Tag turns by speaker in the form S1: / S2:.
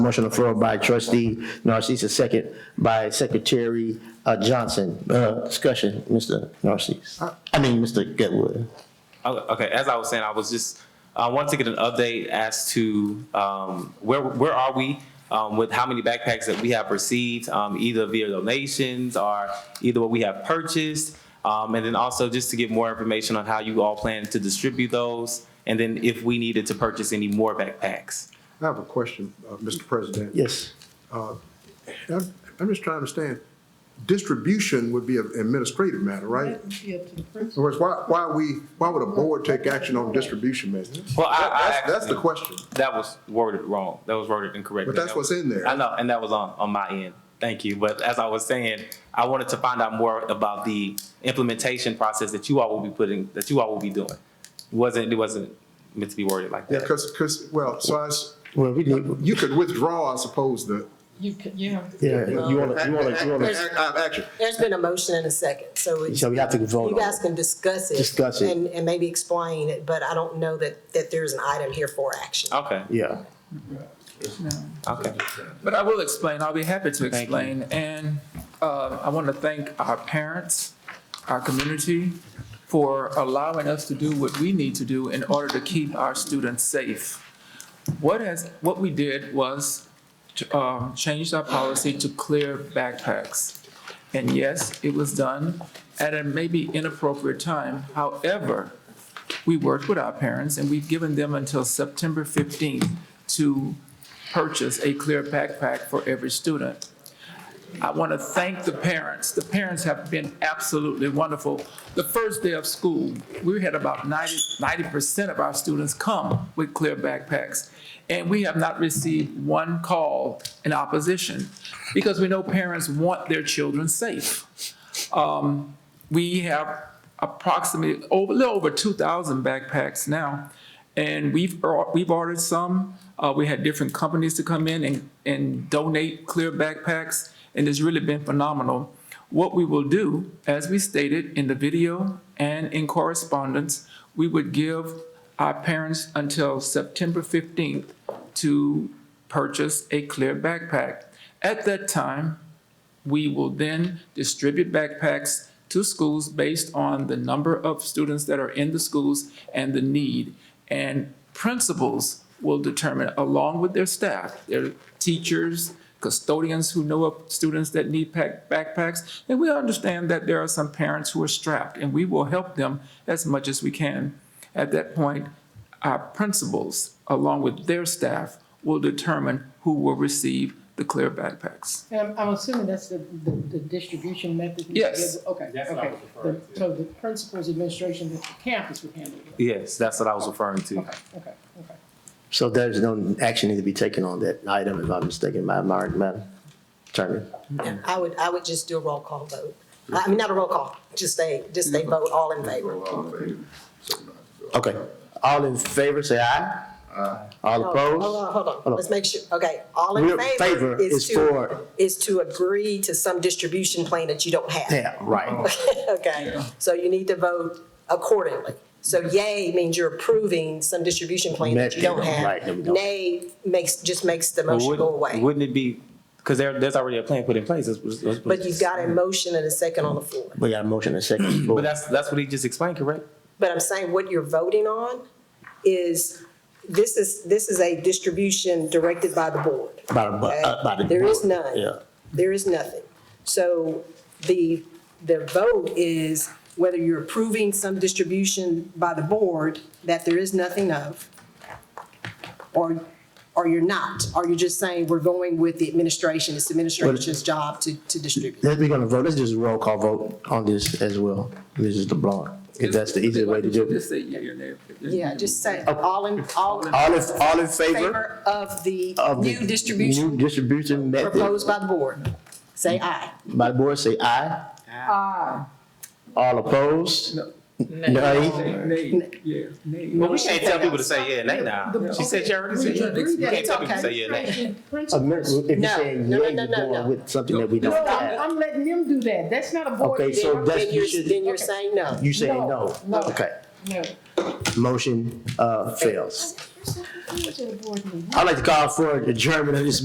S1: Motion on the floor by trustee Narcisse, second by secretary uh, Johnson. Uh, Discussion, Mr. Narcisse, I mean, Mr. Getwood.
S2: Okay, okay, as I was saying, I was just, I wanted to get an update as to um, where, where are we um, with how many backpacks that we have received, um, either via donations or either what we have purchased? Um, And then also just to get more information on how you all plan to distribute those, and then if we needed to purchase any more backpacks.
S3: I have a question, uh, Mr. President.
S1: Yes.
S3: I'm I'm just trying to understand, distribution would be an administrative matter, right?
S4: That would be up to the principal.
S3: Whereas why, why we, why would a board take action on distribution methods?
S2: Well, I- I
S3: That's, that's
S2: actually-
S3: the question.
S2: That was worded wrong. That was worded incorrectly.
S3: But that's
S2: That was-
S3: what's in there.
S2: I know, and that was on, on my end. Thank you. But as I was saying, I wanted to find out more about the implementation process that you all will be putting, that you all will be doing. Wasn't, it wasn't meant to be worded like
S3: Yeah,
S2: that.
S3: because, because, well, so I, s-
S1: Well, we need,
S3: you could withdraw, I suppose, the.
S4: You could, yeah.
S1: yeah, you want to, you want to, you want to,
S3: Act- act- Action.
S5: There's been a motion and a second, so it's-
S1: so we have to vote
S5: you
S1: on
S5: guys
S1: it.
S5: can discuss it.
S1: Discuss it.
S5: And, and maybe explain it, but I don't know that, that there's an item here for action.
S2: Okay,
S1: Yeah,
S2: okay.
S6: But I will explain, I'll be happy to explain. And uh, I want to thank our parents, our community, for allowing us to do what we need to do in order to keep our students safe. What has, what we did was to, um, changed our policy to clear backpacks. And yes, it was done at a maybe inappropriate time. However, we worked with our parents and we've given them until September 15th to purchase a clear backpack for every student. I want to thank the parents. The parents have been absolutely wonderful. The first day of school, we had about 90 percent of our students come with clear backpacks. And we have not received one call in opposition because we know parents want their children safe we have approximately over, a little over two thousand backpacks now. And we've, or- we've ordered some, uh, we had different companies to come in and, and donate clear backpacks, and it's really been phenomenal. What we will do, as we stated in the video and in correspondence, we would give our parents until September fifteenth to purchase a clear backpack. At that time, we will then distribute backpacks to schools based on the number of students that are in the schools and the need. And principals will determine, along with their staff, their teachers, custodians who know of students that need pack, backpacks. And we understand that there are some parents who are strapped, and we will help them as much as we can. At that point, our principals, along with their staff, will determine who will receive the clear backpacks.
S4: And I'm, I'm assuming that's the, the, the distribution method? we
S6: Yes.
S4: did. Okay,
S2: That's what I
S4: okay.
S2: was referring
S4: The- So the principal's administration at the campus would handle it?
S2: Yes, that's what I was referring to.
S4: Okay, okay, okay.
S1: so there's no action need to be taken on that item, if I'm mistaken, Madam, Madam Attorney.
S5: I would, I would just do a roll call vote. I mean, not a roll call, just a, just a vote, all in favor.
S3: uh,
S1: Okay, all in favor, say aye. All
S5: Hold
S1: opposed?
S5: on, hold on,
S1: on.
S5: let's make sure, okay, all in
S1: Real
S5: favor is
S1: for,
S5: to, is to agree to some distribution plan that you don't have.
S1: yeah, right,
S5: Okay, so you need to vote accordingly. So yay means you're approving some distribution plan that you don't
S1: Method, right, that we
S5: have.
S1: don't-
S5: Nay makes, just makes the motion go away.
S2: Wouldn't it be, because there, there's already a plan put in place.
S5: But
S2: But
S5: you've got a motion and a second on the floor.
S1: we got a motion and second.
S2: But that's, that's what he just explained, correct?
S5: But I'm saying what you're voting on is, this is, this is a distribution directed by the board.
S1: By the bu-
S5: okay?
S1: uh, by the
S5: There is
S1: board,
S5: none.
S1: yeah.
S5: There is nothing. So the, the vote is whether you're approving some distribution by the board that there is nothing of, or, or you're not, or you're just saying we're going with the administration, it's the administration's job to, to distribute.
S1: Let's, we're gonna vote, let's just roll call vote on this as well, Mrs. LeBlanc, if that's the easiest way to do it.
S6: Just say yeah, your name.
S5: Yeah, just say, all in, all in
S1: All in, all in favor
S5: favor of the
S1: of the
S5: new distribution
S1: New distribution method,
S5: proposed by the board. Say aye.
S1: by the board, say aye. Aye. All opposed? Nay?
S6: Name, yeah, name.
S2: Well, we can't tell people to say yeah, nay now. She said she already said. yeah. We can't tell people to say yeah, nay.
S1: A
S4: Principal-
S1: min- If you're
S5: No,
S1: saying
S5: no, no,
S1: yea,
S5: no,
S1: you're
S5: no,
S1: going
S5: no.
S1: with something that we
S4: No,
S1: don't
S4: I'm,
S1: have.
S4: I'm letting them do that, that's not a board.
S1: Okay, so
S4: thing.
S1: that's-
S5: Then you're,
S1: You should-
S5: then you're saying no.
S1: You saying
S4: No,
S1: no?
S4: no.
S1: Okay,
S4: No.
S1: motion, uh, fails.
S4: There's something to the board meeting.
S1: I'd like to call for adjournment of this